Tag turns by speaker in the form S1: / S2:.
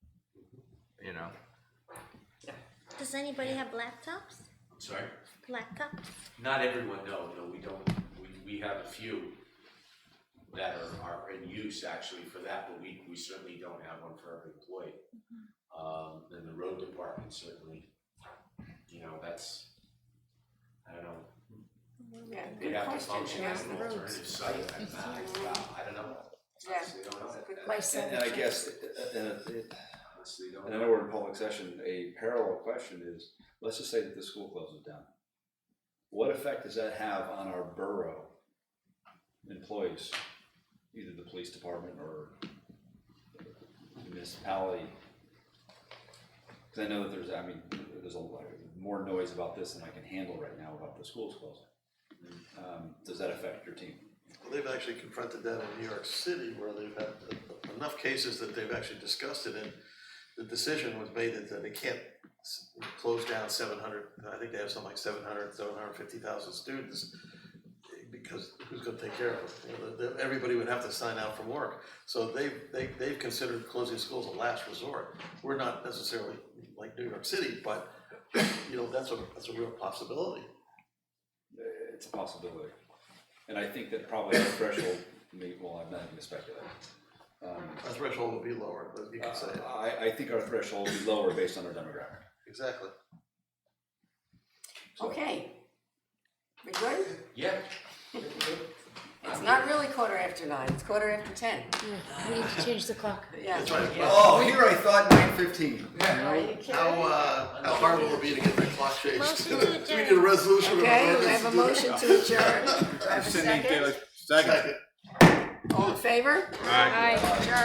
S1: you know.
S2: Does anybody have laptops?
S3: Sorry?
S2: Laptops?
S3: Not everyone, no, no, we don't, we, we have a few that are, are in use actually for that, but we, we certainly don't have one for every employee.
S4: Mm-hmm.
S3: Um, and the road department certainly, you know, that's, I don't know,
S4: Yeah,
S3: they'd
S4: good
S3: have to
S4: question.
S3: function as an
S4: Yeah.
S3: alternative site, I, I, I don't know.
S4: Yeah.
S3: Honestly, don't know.
S4: That's a good
S3: That-
S4: question.
S5: And, and I guess, uh, uh, uh,
S3: Honestly, don't
S5: and I know we're in public session, a parallel question is, let's just say that the school closes down. What effect does that have on our borough employees, either the police department or the municipality? Cause I know that there's, I mean, there's a lot, more noise about this than I can handle right now about the schools closing. Um, does that affect your team?
S6: Well, They've actually confronted that in New York City where they've had enough cases that they've actually discussed it and the decision was made that- that they can't s- close down seven hundred, I think they have something like 700, 750,000 students because who's gonna take care of them? You know, the- the- Everybody would have to sign out from work. So they've, they, they've considered closing schools a last resort. We're not necessarily like New York City, but you know, that's a, that's a real possibility.
S5: It's a possibility. And I think that probably our threshold, may well, I'm not even speculating. Um,
S6: Our threshold would be lower, but you could say, it.
S5: I, I think our threshold will be lower based on our demographic.
S6: exactly.
S5: So-
S4: Okay. We good?
S3: Yeah,
S4: It's not really quarter after nine, it's quarter after ten.
S2: We need to change the clock.
S4: Yeah.
S6: That's right.
S5: Oh, here I thought nine fifteen.
S4: Are you
S6: How,
S4: kidding?
S6: uh, how hard will it be to get that clock changed?
S2: Motion
S6: Do
S2: to
S6: we need a
S2: adjourn.
S6: resolution? or an
S4: Okay, we
S6: ordinance
S4: have a
S6: to do
S4: motion to adjourn. Do I have a second?
S6: that? Second.
S4: All in favor?
S2: Aye.
S4: Adjourn.